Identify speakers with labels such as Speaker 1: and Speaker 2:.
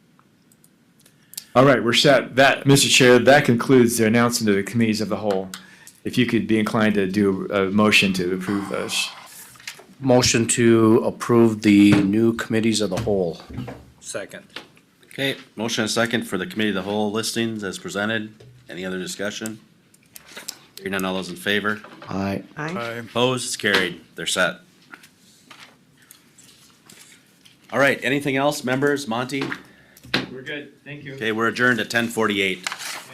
Speaker 1: All right, we're set. That, Mr. Chair, that concludes the announcement of the committees of the whole. If you could be inclined to do a motion to approve those.
Speaker 2: Motion to approve the new committees of the whole.
Speaker 3: Second.
Speaker 4: Okay, motion and second for the committee of the whole listings as presented. Any other discussion? Hearing none, all those in favor?
Speaker 2: Aye.
Speaker 5: Aye.
Speaker 4: Opposed, it's carried. They're set. All right, anything else, members? Monty?
Speaker 6: We're good, thank you.
Speaker 4: Okay, we're adjourned at ten forty-eight.